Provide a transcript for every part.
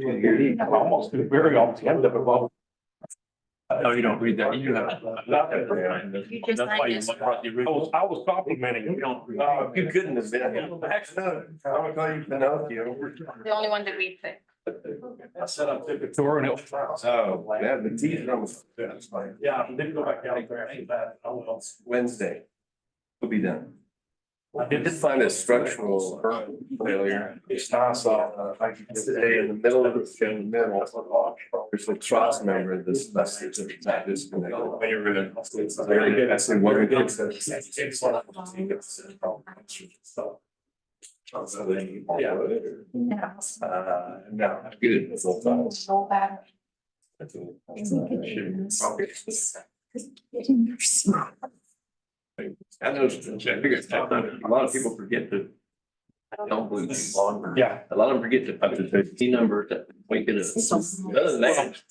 You Almost do very altogether, but well. No, you don't read that. You have. You That's just why signed you this. brought the I original. was, I was complimenting You you. don't read. Oh, you couldn't have been. Actually, no. I'm glad you Pinocchio. The only one that we picked. I said I took a tour and it was. Oh, yeah, the teacher was, that's like Yeah, I didn't go back out there after that. Oh, well. Wednesday. We'll be done. I Did find a structural failure. It's not uh, so. Today in the middle of the, in the middle. There's a trust member in this message of that is connected. Very good. I said, what we did. Yeah. Uh, no, good. It's all done. So bad. That's all. Probably. I know, it's- I figure it's tough. a lot of people forget to, don't believe in longer. Yeah. A lot of them forget to put the T number that we can. Other than that.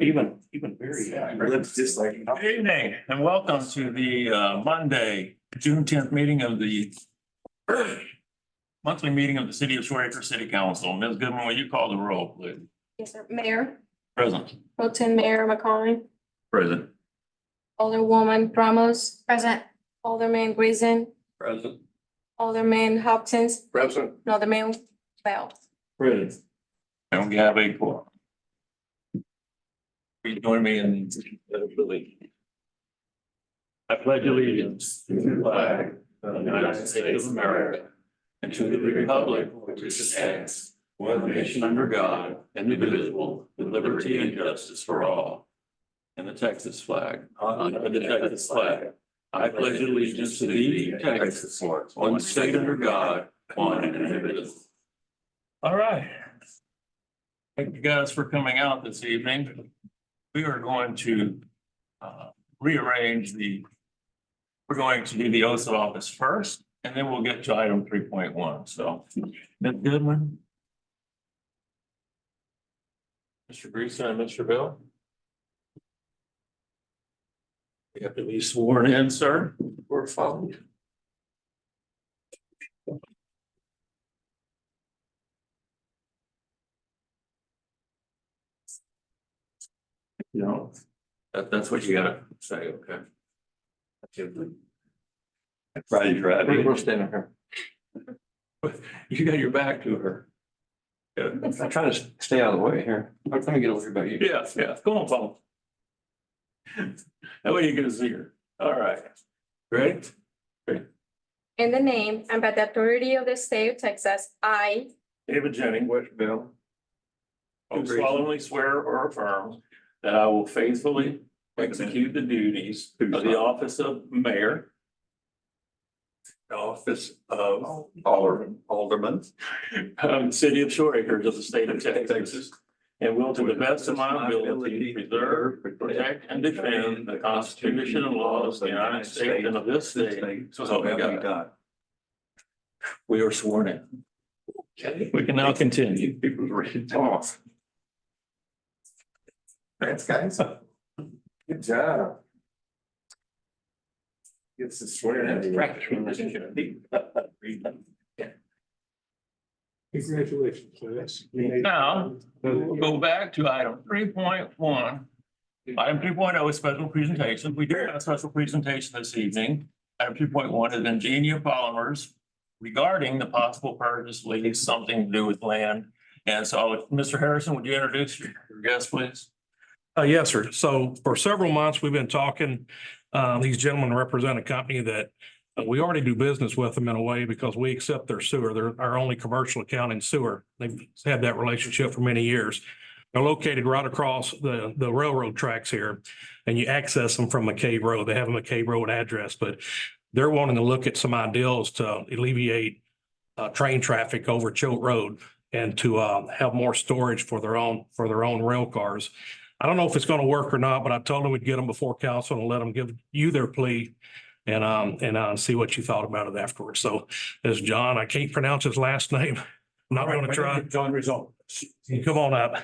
Even, even very. It's just like. Good evening and welcome to the uh, Monday, June tenth meeting of the monthly meeting of the City of Shore Acre City Council. Ms. Goodman, will you call the roll, please? Yes, sir. Mayor, Present. Pro Tem Mayor McCollum, Present. Alderwoman Ramos. Present. Alderman Grayson, Present. Alderman Hopkins, Present. and Alderman Bell. Present. And we have a quorum. Will you join me in the pledge? I pledge allegiance to the flag Uh, of the United States of America and to the republic which stands one nation under God, indivisible, with liberty and justice for all. And the Texas flag, under the Texas flag, I pledge allegiance to the Texas, one state under God, one and indivisible. All right. Thank you guys for coming out this evening. We are going to uh, rearrange the, we're going to do the oath of office first, and then we'll get to item three point one, so. Ms. Goodman? Mr. Greason and Mr. Bell? You have to be sworn in, sir. We're following. No. That, that's what you gotta say, okay? We're Friday, Friday. we're standing here. You got your back to her. Yeah, I'm trying to stay out of the way here. I'm trying to get over here by you. yeah, yeah. Go on, Paul. That way you can see her. All right. Great. In the name and by the authority of the state of Texas, I David Jennings, West Bill. do solemnly swear or affirm that I will faithfully execute the duties of the office of mayor. the Office of Alderman. Alderman. Um, city of Shore Acres of the state of Texas. And will to the best of my ability preserve, protect and defend the Constitution and laws of the United States and of this state. So help me God. We are sworn in. Okay. We can now continue. People's ready to talk. Thanks, guys. Good job. Gets to swear. in. Congratulations, Clarence. Now, We'll go back to item three point one. Item three oh is special presentation. We do have a special presentation this evening. Item three point one is Ingenia Polymers regarding the possible purchase lease, something to do with land. And so, Mr. Harrison, would you introduce your your guest, please? Uh, yes, sir. So for several months, we've been talking, um, these gentlemen represent a company that uh, we already do business with them in a way because we accept their sewer. They're our only commercial account in sewer. They've had that relationship for many years. They're located right across the, the railroad tracks here and you access them from McCabe Road. They have a McCabe Road address, but they're wanting to look at some ideals to alleviate uh, train traffic over Choate Road and to, uh, have more storage for their own, for their own rail cars. I don't know if it's gonna work or not, but I told them we'd get them before council and let them give you their plea. And, um, and, uh, see what you thought about it afterwards. So as John, I can't pronounce his last name. I'm not gonna try. John Rizzo. Come on up.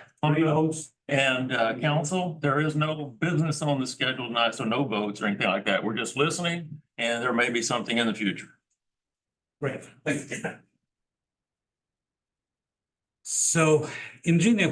And uh, council, there is no business on the schedule tonight, so no votes or anything like that. We're just listening and there may be something in the future. Great. So Ingenia